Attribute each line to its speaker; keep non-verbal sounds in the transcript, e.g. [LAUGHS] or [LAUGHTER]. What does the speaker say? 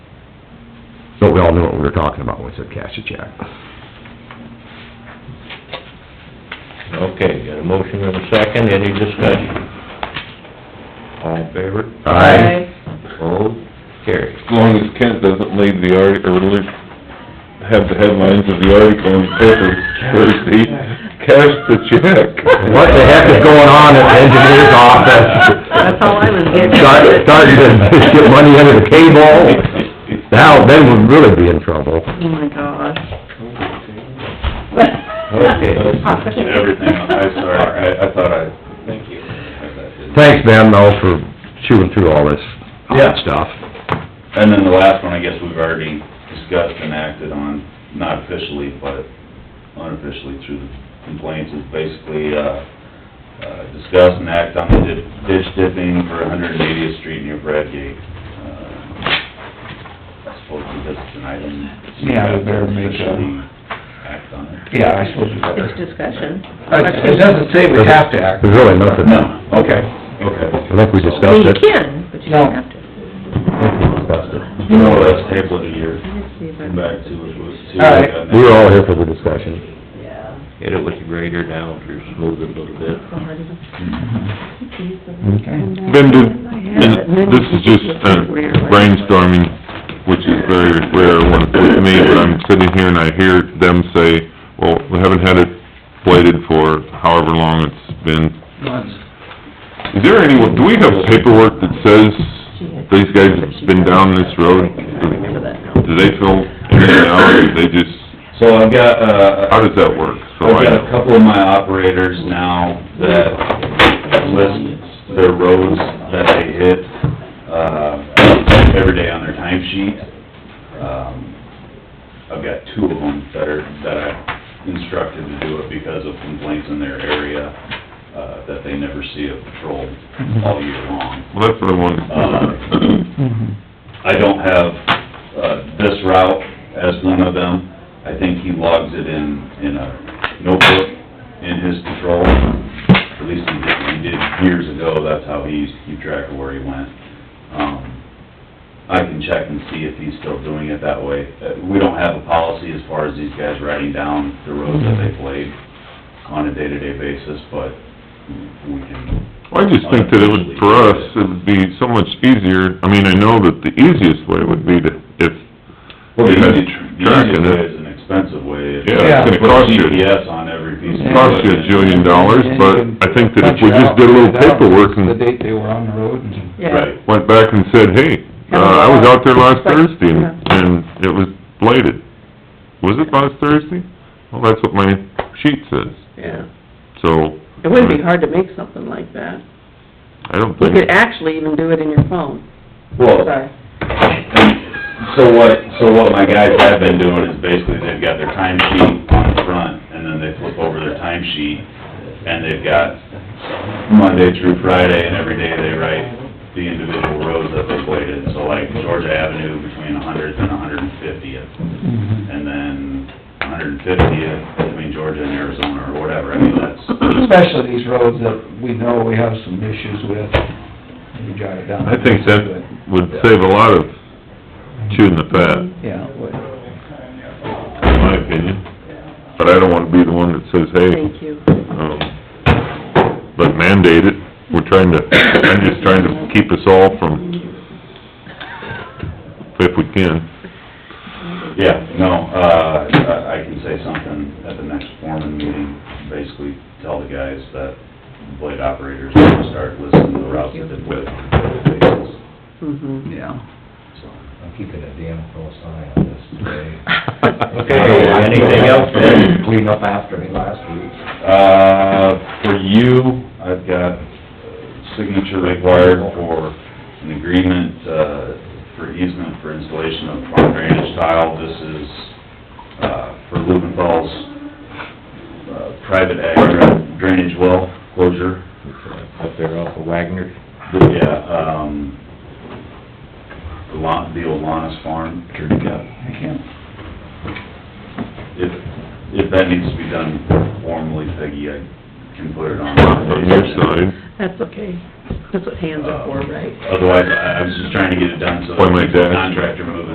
Speaker 1: But we all knew what we were talking about when we said cash a check.
Speaker 2: Okay, got a motion and a second, any discussion? All in favor?
Speaker 1: Aye.
Speaker 2: Opposed? Carried.
Speaker 3: As long as Kent doesn't lead the article, or at least have the headlines of the article in the paper Thursday, cash the check.
Speaker 1: What the heck is going on at the engineer's office?
Speaker 4: That's all I was getting.
Speaker 1: Start- Starting to [LAUGHS] get money under the table. Now, then we'd really be in trouble.
Speaker 4: Oh, my gosh. [LAUGHS]
Speaker 1: Okay.
Speaker 3: Everything, I'm sorry, I, I thought I... Thank you.
Speaker 1: Thanks, Ben, though, for chewing through all this hot
Speaker 5: Yeah.
Speaker 1: stuff.
Speaker 5: And then the last one, I guess we've already discussed and acted on, not officially, but unofficially through the complaints, is basically, uh, uh, discuss and act on the di- ditch dipping for 180th Street near Bradgate. Uh, I suppose because it's an item.
Speaker 6: Yeah, we better make a-
Speaker 5: Officially Act on it.
Speaker 6: Yeah, I suppose we
Speaker 4: Just
Speaker 6: better.
Speaker 4: discussion.
Speaker 6: It doesn't say we have to act.
Speaker 1: There's really nothing.
Speaker 5: No,
Speaker 6: Okay.
Speaker 1: I think we
Speaker 4: I mean,
Speaker 1: discussed
Speaker 4: you
Speaker 1: it.
Speaker 4: can, but you don't have to.
Speaker 1: I think we discussed it.
Speaker 5: you know, that's table of the year,
Speaker 4: Let's see if I-
Speaker 5: come back to it, we'll see.
Speaker 6: All right.
Speaker 1: We were all here for the discussion.
Speaker 2: Hit it with the grader now, you're smooth it a little bit.
Speaker 6: Okay.
Speaker 3: Then did, and this is just uh, brainstorming, which is very rare when it's with me, but I'm sitting here and I hear them say, well, we haven't had it bladed for however long it's been. Is there any, do we have paperwork that says these guys have been down this road? Do they fill in and out, or they just,
Speaker 5: So I've got, uh,
Speaker 3: how does that work? So
Speaker 5: I've
Speaker 3: I
Speaker 5: got a
Speaker 3: know.
Speaker 5: couple of my operators now that list their roads that they hit, uh, every day on their timesheet. Um, I've got two of them that are, that I instructed to do it because of complaints in their area, uh, that they never see a patrol all year long.
Speaker 3: Well, that's what I
Speaker 5: Uh,
Speaker 3: wanted.
Speaker 5: I don't have, uh, this route as one of them. I think he logs it in, in a notebook in his control. At least he did, he did years ago, that's how he used to keep track of where he went. Um, I can check and see if he's still doing it that way. Uh, We don't have a policy as far as these guys writing down the roads that they played on a day-to-day basis, but we can
Speaker 3: Well, I just think that it would, for us, it would be so much easier, I mean, I know that the easiest way would be to, if,
Speaker 5: Well, the
Speaker 3: Yeah,
Speaker 5: easy, the
Speaker 3: tracking it.
Speaker 5: easy way is an expensive way.
Speaker 3: yeah, it's gonna cost
Speaker 5: Put
Speaker 3: you,
Speaker 5: GPS on every piece of...
Speaker 3: cost you a jillion dollars, but I think that if we just did a little paperwork
Speaker 6: The
Speaker 3: and
Speaker 6: date they were on the road and...
Speaker 4: Yeah.
Speaker 5: Right.
Speaker 3: went back and said, hey, uh, I was out there last Thursday and, and it was bladed. Was it last Thursday? Well, that's what my sheet says,
Speaker 4: Yeah.
Speaker 3: so.
Speaker 4: It wouldn't be hard to make something like that.
Speaker 3: I don't
Speaker 4: You
Speaker 3: think,
Speaker 4: could actually even do it in your phone.
Speaker 5: Well,
Speaker 3: Oh.
Speaker 4: Sorry.
Speaker 5: so what, so what my guys have been doing is basically they've got their time sheet on the front, and then they flip over their time sheet, and they've got Monday through Friday, and every day they write the individual roads that they played in. So like Georgia Avenue between 100th and 150th. and then 150th between Georgia and Arizona or whatever, I mean, that's...
Speaker 6: Especially these roads that we know we have some issues with, we jot it down.
Speaker 3: I think that would save a lot of chewing the fat.
Speaker 6: Yeah, but-
Speaker 3: in my opinion. But I don't wanna be the one that says, hey,
Speaker 4: Thank you.
Speaker 3: um, but mandate it. We're trying to, I'm just trying to keep us all from, if we can.
Speaker 5: Yeah, no, uh, I I can say something at the next foreman meeting, basically tell the guys that blade operators need to start listening to the routes that they've been on.
Speaker 4: Mm-hmm.
Speaker 6: yeah.
Speaker 7: I'm keeping a damn close eye on this today.
Speaker 5: Okay, Uh, anything else, Ben?
Speaker 7: Clean up after me last week.
Speaker 5: Uh, for you, I've got signature required for an agreement, uh, for easement for installation of farm drainage tile. This is, uh, for Lubenthal's, uh, private ag drainage well closure. uh,
Speaker 2: Up there off of Wagner.
Speaker 5: Yeah, um, the Lon, the Olanas farm.
Speaker 6: I can't,
Speaker 5: If, if that needs to be done formally, Peggy, I can put it on.
Speaker 3: On your side,
Speaker 4: That's okay. That's what hands are for, right?
Speaker 5: Otherwise, I I was just trying to get it done so
Speaker 3: Why my
Speaker 5: that the
Speaker 3: dad-
Speaker 5: contractor moving